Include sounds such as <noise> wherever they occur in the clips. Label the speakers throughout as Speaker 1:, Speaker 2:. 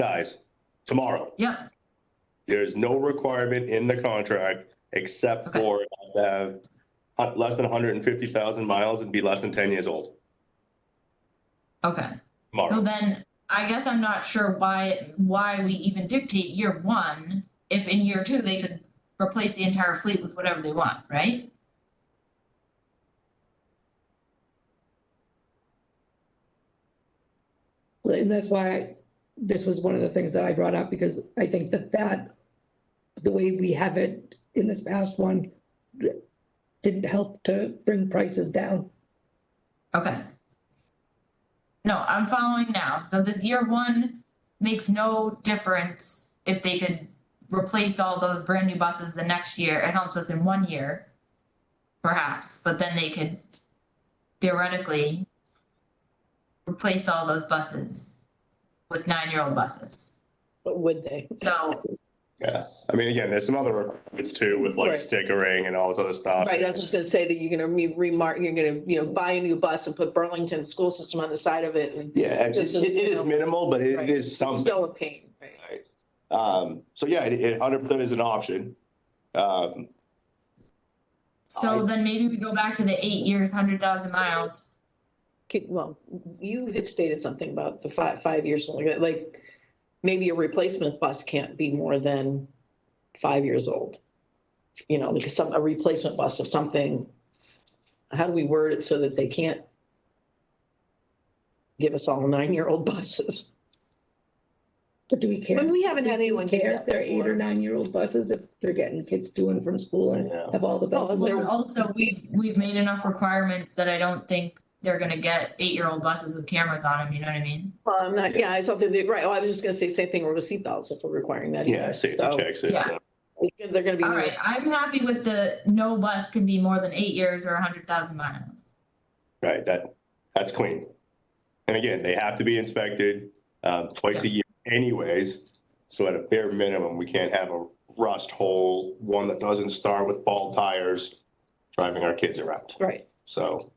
Speaker 1: dies tomorrow.
Speaker 2: Yep,
Speaker 1: There is no requirement in the contract except
Speaker 2: Okay.
Speaker 1: for it has to have uh, less than 150,000 miles and be less than 10 years old
Speaker 2: okay. So
Speaker 1: tomorrow.
Speaker 2: then, I guess I'm not sure why, why we even dictate year one, if in year two, they could replace the entire fleet with whatever they want, right?
Speaker 3: Right, And that's why this was one of the things that I brought up, because I think that that, the way we have it in this past one, didn't help to bring prices down.
Speaker 2: Okay. No, I'm following now. So this year one makes no difference if they could replace all those brand new buses the next year. It helps us in one year, perhaps, but then they could theoretically replace all those buses with nine-year-old buses.
Speaker 4: But would they?
Speaker 2: So,
Speaker 1: Yeah. I mean, again, there's some other requirements too with like
Speaker 4: Right.
Speaker 1: stickering and all this other stuff.
Speaker 4: Right, that's what I was gonna say, that you're gonna re- remark, you're gonna, you know, buy a new bus and put Burlington School System on the side of it and
Speaker 1: Yeah, and it
Speaker 4: Just
Speaker 1: it-
Speaker 4: as-
Speaker 1: it is minimal, but it
Speaker 4: Right.
Speaker 1: it is
Speaker 4: it's
Speaker 1: something.
Speaker 4: still a pain, right?
Speaker 1: Um, So yeah, it- it 100% is an option. Um,
Speaker 2: so then maybe we go back to the eight years, hundred thousand miles.
Speaker 4: Could- Well, you had stated something about the five, five years, something like that, like, maybe a replacement bus can't be more than five years old. You know, because some, a replacement bus of something, how do we word it so that they can't give us all nine-year-old buses?
Speaker 3: But do we care?
Speaker 4: But we haven't had
Speaker 3: Do we
Speaker 4: anyone do
Speaker 3: Care
Speaker 4: that
Speaker 3: if they're eight
Speaker 4: before.
Speaker 3: or nine-year-old buses, if they're getting kids to and from school and
Speaker 1: Yeah.
Speaker 3: have all the bells. and
Speaker 4: Well,
Speaker 2: Well,
Speaker 3: whistles?
Speaker 2: and also, we've, we've made enough requirements that I don't think they're gonna get eight-year-old buses with cameras on them, you know what I mean?
Speaker 4: Well, I'm not, yeah, I saw the, right, well, I was just gonna say same thing with seatbelts if we're requiring that.
Speaker 1: Yeah,
Speaker 4: either.
Speaker 1: safety
Speaker 4: So,
Speaker 1: checks.
Speaker 2: Yeah.
Speaker 1: it's-
Speaker 4: it's good- They're gonna be.
Speaker 2: All right, I'm happy with the no bus can be more than eight years or hundred thousand miles.
Speaker 1: Right, that, that's clean. And again, they have to be inspected um, twice a year anyways. So at a bare minimum, we can't have a rust hole, one that doesn't start with bald tires, driving our kids around.
Speaker 4: Right.
Speaker 1: So,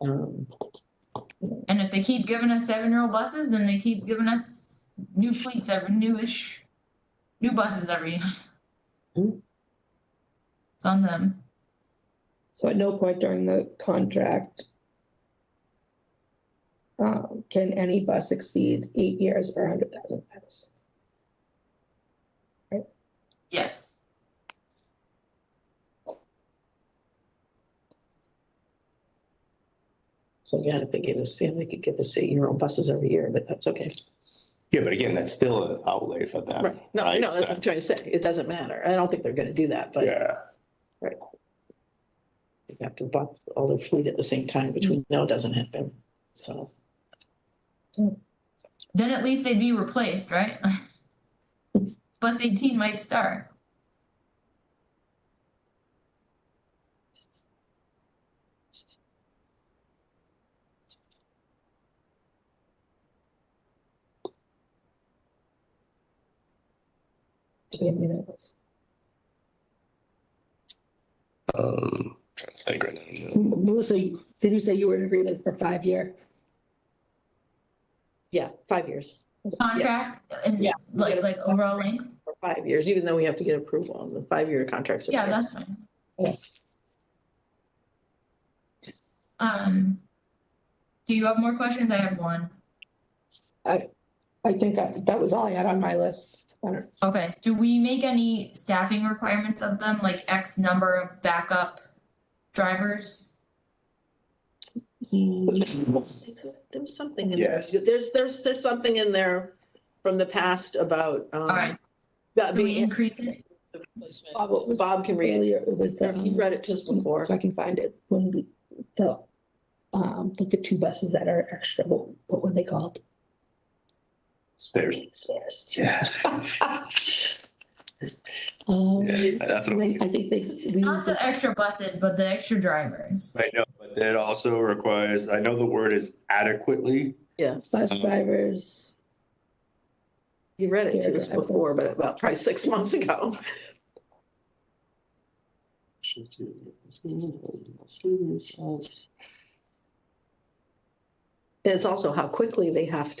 Speaker 4: Um,
Speaker 2: And if they keep giving us seven-year-old buses, then they keep giving us new fleets, every newish, new buses every year.
Speaker 4: Hmm.
Speaker 2: It's on them.
Speaker 3: So at no point during the contract um, can any bus exceed eight years or hundred thousand miles.
Speaker 2: Yes.
Speaker 4: So again, if they gave us, yeah, they could give us eight-year-old buses every year, but that's okay.
Speaker 1: yeah, but again, that's still an outlay for them.
Speaker 4: Right, no,
Speaker 1: Right,
Speaker 4: no, that's what
Speaker 1: so-
Speaker 4: I'm trying to say. It doesn't matter. I don't think they're gonna do that, but you
Speaker 1: Yeah,
Speaker 4: have to buy all their fleet at the same time, which we know doesn't happen, so.
Speaker 2: Then at least they'd be replaced, right? <laughs> Bus eighteen might start.
Speaker 3: Do we have any of those?
Speaker 1: um, trying to think right now.
Speaker 3: M- Melissa, did you say you were in agreement for five year?
Speaker 4: Yeah, five years,
Speaker 2: Contract and
Speaker 4: Yeah.
Speaker 2: like, like overall length.
Speaker 4: or five years, even though we have to get approval on the five-year contracts.
Speaker 2: Yeah, that's fine.
Speaker 3: Okay.
Speaker 2: Um, do you have more questions? I have one.
Speaker 3: I think I- that was all I had on my list. I don't-
Speaker 2: Okay, do we make any staffing requirements of them, like X number of backup drivers?
Speaker 4: There was something in there.
Speaker 1: Yes.
Speaker 4: There's, there's, there's something in there from the past about, um.
Speaker 2: Alright.
Speaker 4: about
Speaker 2: Do Uh, we
Speaker 4: being-
Speaker 2: increase it?
Speaker 4: the replacement.
Speaker 3: Bob, what was
Speaker 4: Bob can read it.
Speaker 3: earlier, it was the,
Speaker 4: He
Speaker 3: um,
Speaker 4: read it just before.
Speaker 3: if I can find it, when we, the, um, like the two buses that are extra, what, what were they called?
Speaker 1: Spares.
Speaker 3: Spares.
Speaker 1: Yes.
Speaker 3: Um,
Speaker 1: Yeah, That's what
Speaker 3: I
Speaker 1: I'm-
Speaker 3: I think they, we,
Speaker 2: Not the extra buses, but the extra drivers.
Speaker 1: I know, but it also requires, I know the word is adequately,
Speaker 3: bus drivers.
Speaker 4: You read it to us
Speaker 3: Paragraph.
Speaker 4: before, but about probably six months ago. And It's also how quickly they have